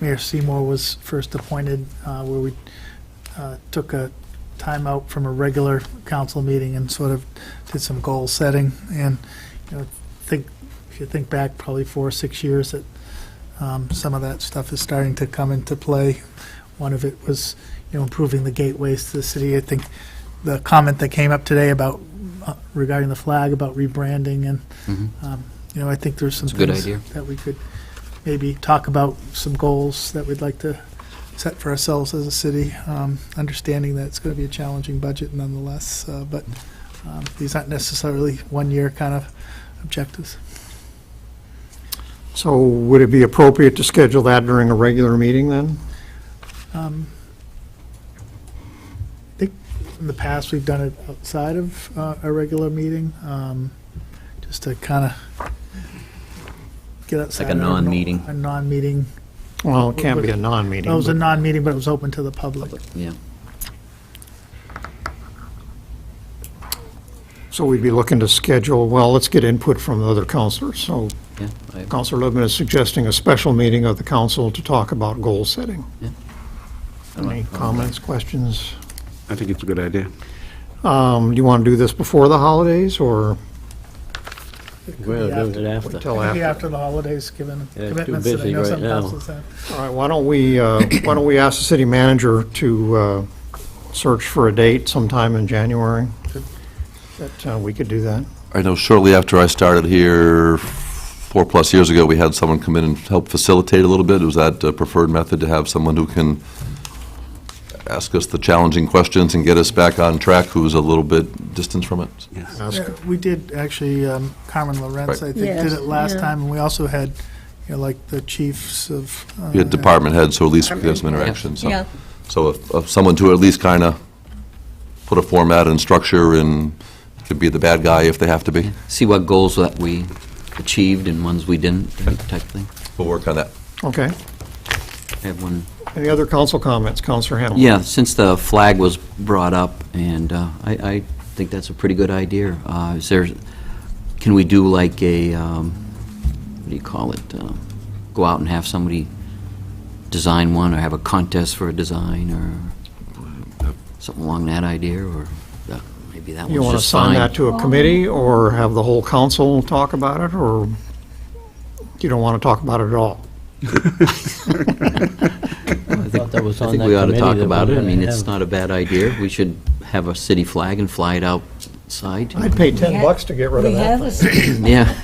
Mayor Seymour was first appointed, uh, where we uh, took a time out from a regular council meeting and sort of did some goal setting. And, you know, think, if you think back probably four, or six years, that um, some of that stuff is starting to come into play. One of it was, you know, improving the gateways to the city. I think the comment that came up today about, uh, regarding the flag, about rebranding and um, You know, I think there's some It's a good things idea. that we could maybe talk about, some goals that we'd like to set for ourselves as a city, um, understanding that it's going to be a challenging budget nonetheless, uh, but um, these aren't necessarily one-year kind of objectives. So would it be appropriate to schedule that during a regular meeting then? Um, I think in the past, we've done it outside of uh, a regular meeting, um, just to kind of get outside. a of our nor- non-meeting. A non-meeting Well, it can't be a non-meeting. It was a but- non-meeting, but it was open to the public. Yeah. So we'd be looking to schedule, well, let's get input from the other counselors. So Yeah. I- Counselor Lippman is suggesting a special meeting of the council to talk about goal setting. I don't Any know. comments, questions? I think it's a good idea. Um, Do you want to do this before the holidays or Well, be do it after. wait Oh, till Maybe after? after the holidays, given Yeah, it's too commitments that I busy know right some now. councils have. All right, why don't we, uh, why don't we ask the city manager to uh, search for a date sometime in January? That uh, we could do that. I know shortly after I started here, four-plus years ago, we had someone come in and help facilitate a little bit. Was that a preferred method to have someone who can ask us the challenging questions and get us back on track, who's a little bit distant from it? Yes. Ask- Yeah, We did, actually, um, Carmen Lorenz, I think, did Yes, it last yeah. time, and we also had, you know, like, the chiefs of. uh, We had department heads, so at least we could have some interaction. so- Yeah, So if if someone to at least kind of put a format and structure and could be the bad guy if they have to be. See what goals that we achieved and ones we didn't, type thing. We'll work on that. Okay. I have one. Any other council comments? Counselor Hamel? Yeah, since the flag was brought up, and uh, I, I think that's a pretty good idea. Uh, Is there, can we do like a, um, what do you call it? Um, Go out and have somebody design one, or have a contest for a design, or something along that idea, or that- maybe that You one's want to just assign fine. that to a committee or have the whole council talk about it, or you don't want to talk about it at all? I think, that was I on think that we ought to committee talk that about we it. I were mean, gonna it's have. not a bad idea. We should have a city flag and fly it outside. I'd pay We 10 ha- bucks to get rid of we have that. a city Yeah,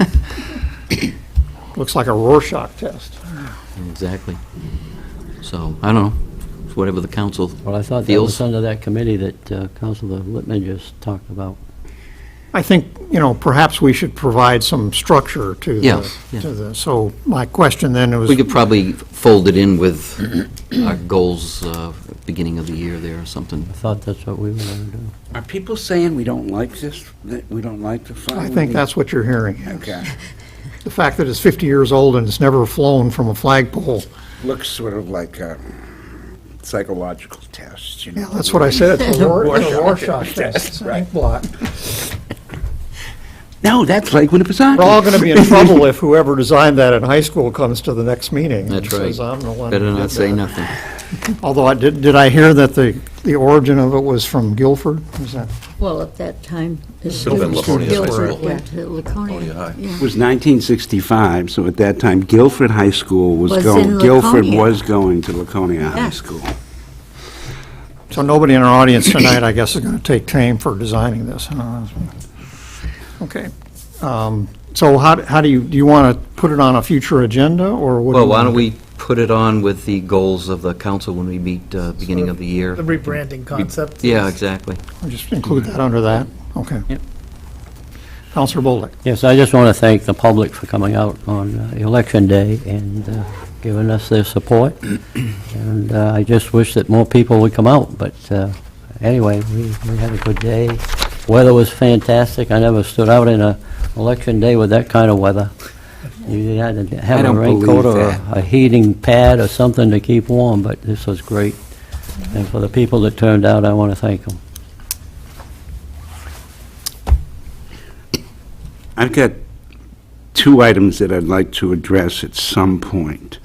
Looks like a Rorschach test. exactly. So, I don't know, whatever the council Well, I thought that feels. was under that committee that uh, Councilor Lippman just talked about. I think, you know, perhaps we should provide some structure to Yeah, the, yeah. to the, so my question then was, We could probably fold it in with our goals, uh, beginning of the year there or something. I thought that's what we were going to do. Are people saying we don't like this, that we don't like the flag? I think that's what you're hearing. yes. Okay. The fact that it's 50 years old and it's never flown from a flagpole, Looks sort of like a psychological test, you know? yeah, that's what I said, it's a Ror- it's a Rorschach Rorschach test. test, It's an right. ink blot. No, that's like Winnipesaukee. We're all going to be in trouble if whoever designed that in high school comes to the next meeting. and That's right. says, "I'm the one who Better did not say that." nothing. Although I did, did I hear that the, the origin of it was from Guilford? Is that, well, at that time, the have been students from Laconia High Guilford School. went to Laconia High. Laconia. yeah. It was 1965, so at that time Guilford High School was Was going, in Guilford Laconia. was going to Laconia High Yeah. School. so nobody in our audience tonight, I guess, is going to take claim for designing this. huh? Okay. Um, So how, how do you, do you want to put it on a future agenda, or what? do Well, you why wanna don't do? we put it on with the goals of the council when we meet, uh, beginning of the year? The rebranding concept. Yeah, exactly. Just include that under that? Okay. Yep. Counselor Bolduc? Yes, I just want to thank the public for coming out on uh, Election Day and uh, giving us their support. And uh, I just wish that more people would come out, but uh, anyway, we we had a good day. Weather was fantastic. I never stood out in a election day with that kind of weather. You had to have a don't raincoat believe or a- that. a heating pad or something to keep warm, but this was great. And for the people that turned out, I want to thank them. I've got two items that I'd like to address at some point.